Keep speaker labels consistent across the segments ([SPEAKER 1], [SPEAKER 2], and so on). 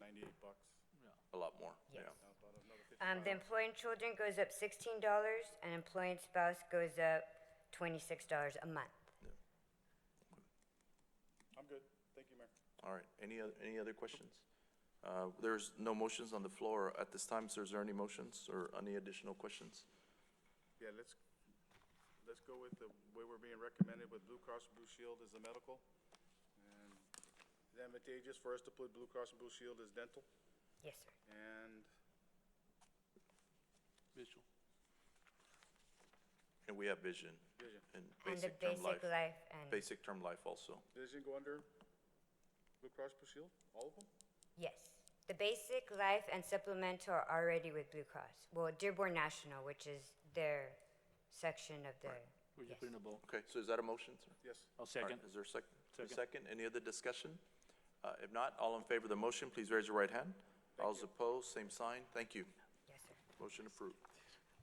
[SPEAKER 1] ninety-eight bucks.
[SPEAKER 2] a lot more, yeah.
[SPEAKER 3] Yes.
[SPEAKER 1] Now about another
[SPEAKER 3] Um,
[SPEAKER 1] 55.
[SPEAKER 3] the employee and children goes up sixteen dollars, and employee and spouse goes up twenty-six dollars a month.
[SPEAKER 1] I'm good. Thank you, Mayor.
[SPEAKER 2] All right, any other, any other questions? Uh, There's no motions on the floor at this time, so is there any motions or any additional questions?
[SPEAKER 1] Yeah, let's, let's go with the way we're being recommended with Blue Cross Blue Shield as the medical. And Is it advantageous for us to put Blue Cross and Blue Shield as dental?
[SPEAKER 3] Yes, sir.
[SPEAKER 1] And
[SPEAKER 4] Mitchell.
[SPEAKER 2] And we have vision
[SPEAKER 1] vision,
[SPEAKER 2] and
[SPEAKER 3] And the
[SPEAKER 2] basic term life.
[SPEAKER 3] basic life and,
[SPEAKER 2] Basic term life also.
[SPEAKER 1] vision go under Blue Cross Blue Shield, all of them?
[SPEAKER 3] yes. The basic life and supplemental are already with Blue Cross. Well, Dearborn National, which is their section of the,
[SPEAKER 4] We're
[SPEAKER 3] yes.
[SPEAKER 4] just putting a ball.
[SPEAKER 2] Okay, so is that a motion, sir?
[SPEAKER 1] Yes.
[SPEAKER 4] I'll
[SPEAKER 2] All right,
[SPEAKER 4] second.
[SPEAKER 2] Is there a second?
[SPEAKER 4] Second.
[SPEAKER 2] Second, any other discussion? Uh, If not, all in favor of the motion, please raise your right hand. All opposed, same sign, thank you.
[SPEAKER 3] Yes, sir.
[SPEAKER 2] Motion approved.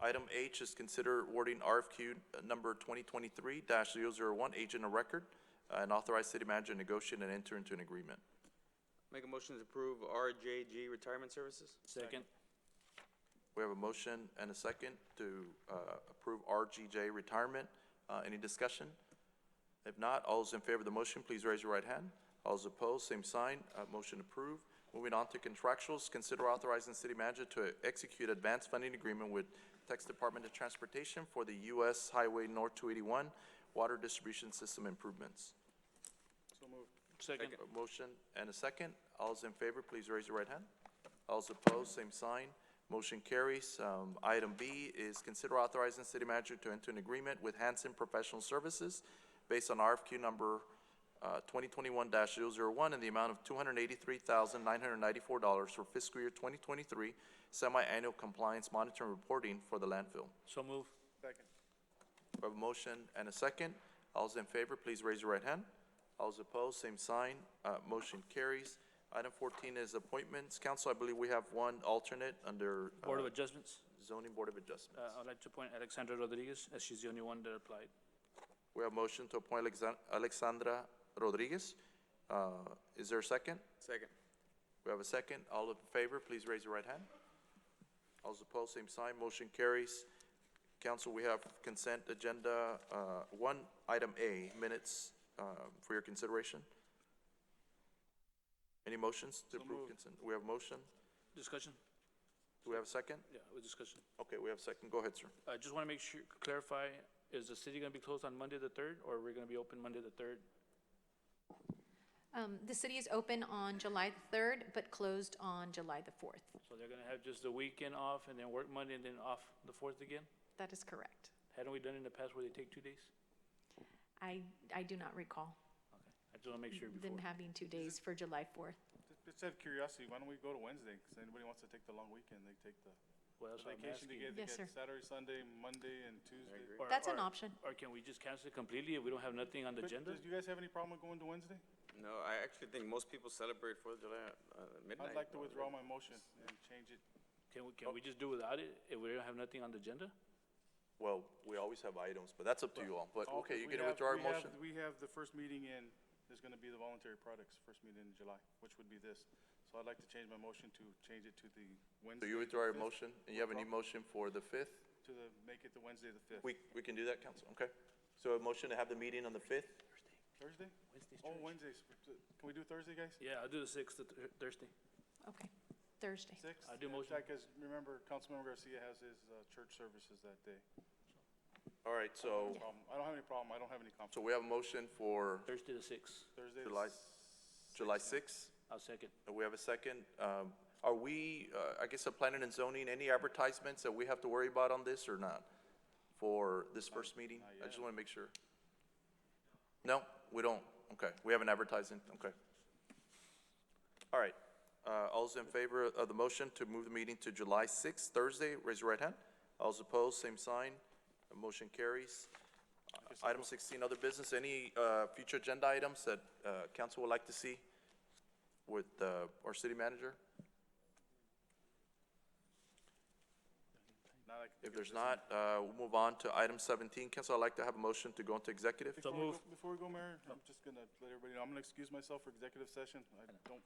[SPEAKER 2] Item H is consider awarding RFQ number 2023-001, agent of record, uh, and authorize city manager to negotiate and enter into an agreement.
[SPEAKER 5] Make a motion to approve RJG Retirement Services?
[SPEAKER 4] Second.
[SPEAKER 2] We have a motion and a second to uh, approve RGJ retirement. Uh, Any discussion? If not, all those in favor of the motion, please raise your right hand. All those opposed, same sign. Uh, Motion approved. Moving on to contractuals, consider authorizing city manager to execute advanced funding agreement with Texas Department of Transportation for the U.S. Highway North 281 Water Distribution System Improvements.
[SPEAKER 1] So moved.
[SPEAKER 4] Second.
[SPEAKER 2] A motion and a second. All those in favor, please raise your right hand. All those opposed, same sign. Motion carries. Um, Item B is consider authorizing city manager to enter an agreement with Hanson Professional Services based on RFQ number uh, 2021-001 in the amount of $283,994 for fiscal year 2023 semi-annual compliance monitoring reporting for the landfill.
[SPEAKER 4] So move.
[SPEAKER 1] Second.
[SPEAKER 2] We have a motion and a second. All those in favor, please raise your right hand. All those opposed, same sign. Uh, motion carries. Item fourteen is appointments. Council, I believe we have one alternate under,
[SPEAKER 4] Board of
[SPEAKER 2] uh,
[SPEAKER 4] Adjustments.
[SPEAKER 2] zoning board of adjustments.
[SPEAKER 4] Uh, I'd like to appoint Alexandra Rodriguez, as she's the only one that applied.
[SPEAKER 2] We have motion to appoint Alexan- Alexandra Rodriguez. Uh, is there a second?
[SPEAKER 5] Second.
[SPEAKER 2] We have a second. All in favor, please raise your right hand. All those opposed, same sign. Motion carries. Council, we have consent agenda, uh, one, item A, minutes, uh, for your consideration. Any motions to approve consent? We have motion.
[SPEAKER 4] Discussion?
[SPEAKER 2] Do we have a second?
[SPEAKER 4] Yeah, with discussion.
[SPEAKER 2] Okay, we have a second. Go ahead, sir.
[SPEAKER 4] I just want to make sure, clarify, is the city going to be closed on Monday the third, or we're going to be open Monday the third?
[SPEAKER 6] Um, The city is open on July the 3rd, but closed on July the 4th.
[SPEAKER 4] So they're going to have just the weekend off and then work Monday and then off the fourth again?
[SPEAKER 6] That is correct.
[SPEAKER 4] Hadn't we done it in the past where they take two days?
[SPEAKER 6] I, I do not recall
[SPEAKER 4] Okay, I just want to make sure before.
[SPEAKER 6] them having two days for July 4th.
[SPEAKER 1] Just- Just out of curiosity, why don't we go to Wednesday? Because anybody wants to take the long weekend, they take the
[SPEAKER 4] Well,
[SPEAKER 1] the
[SPEAKER 4] that's what I'm
[SPEAKER 1] vacation to
[SPEAKER 4] asking.
[SPEAKER 1] get, they
[SPEAKER 6] Yes,
[SPEAKER 1] get
[SPEAKER 6] sir.
[SPEAKER 1] Saturday, Sunday, Monday, and Tuesday.
[SPEAKER 4] Or-
[SPEAKER 6] That's an
[SPEAKER 4] or-
[SPEAKER 6] option.
[SPEAKER 4] Or can we just cancel it completely if we don't have nothing on the
[SPEAKER 1] But
[SPEAKER 4] agenda?
[SPEAKER 1] Does you guys have any problem with going to Wednesday?
[SPEAKER 5] No, I actually think most people celebrate Fourth of July uh, midnight.
[SPEAKER 1] I'd like to withdraw my motion and change it.
[SPEAKER 4] Can we, can we just do without it if we don't have nothing on the agenda?
[SPEAKER 2] Well, we always have items, but that's up to you all. But,
[SPEAKER 1] Oh, 'cause
[SPEAKER 2] okay,
[SPEAKER 1] we
[SPEAKER 2] you can
[SPEAKER 1] have-
[SPEAKER 2] withdraw your
[SPEAKER 1] we have-
[SPEAKER 2] motion.
[SPEAKER 1] We have the first meeting in, there's gonna be the voluntary products, first meeting in July, which would be this. So I'd like to change my motion to change it to the
[SPEAKER 2] So
[SPEAKER 1] Wednesday.
[SPEAKER 2] you withdraw your
[SPEAKER 1] the
[SPEAKER 2] motion, and you have a new motion for the fifth?
[SPEAKER 1] fifth, To the, make it the Wednesday, the fifth.
[SPEAKER 2] We, we can do that, council, okay? So a motion to have the meeting on the fifth?
[SPEAKER 1] Thursday? Oh, Wednesdays. Can we do Thursday, guys?
[SPEAKER 4] Yeah, I'll do the sixth, the thir- Thursday.
[SPEAKER 6] Okay, Thursday.
[SPEAKER 1] Six?
[SPEAKER 4] I do motion.
[SPEAKER 1] Because remember, Councilmember Garcia has his, uh, church services that day.
[SPEAKER 2] All right, so,
[SPEAKER 1] Problem. I don't have any problem. I don't have any conflict.
[SPEAKER 2] so we have a motion for
[SPEAKER 4] Thursday the sixth.
[SPEAKER 1] Thursday. the
[SPEAKER 2] July,
[SPEAKER 1] s-
[SPEAKER 2] July sixth.
[SPEAKER 4] I'll second.
[SPEAKER 2] We have a second. Um, Are we, uh, I guess, the planning and zoning, any advertisements that we have to worry about on this or not? For this first meeting? I just want to make sure. No, we don't. Okay, we haven't advertised it. Okay. All right. Uh, All those in favor of the motion to move the meeting to July sixth, Thursday, raise your right hand. All those opposed, same sign. The motion carries. Uh, Item sixteen, other business. Any uh, future agenda items that uh, council would like to see? with uh, our city manager?
[SPEAKER 1] Not like-
[SPEAKER 2] If there's not, uh, we'll move on to item 17. Council, I'd like to have a motion to go into executive.
[SPEAKER 1] Before we
[SPEAKER 4] move. Oh.
[SPEAKER 1] go- Before we go, Mayor, I'm just gonna let everybody know, I'm gonna excuse myself for executive session. I don't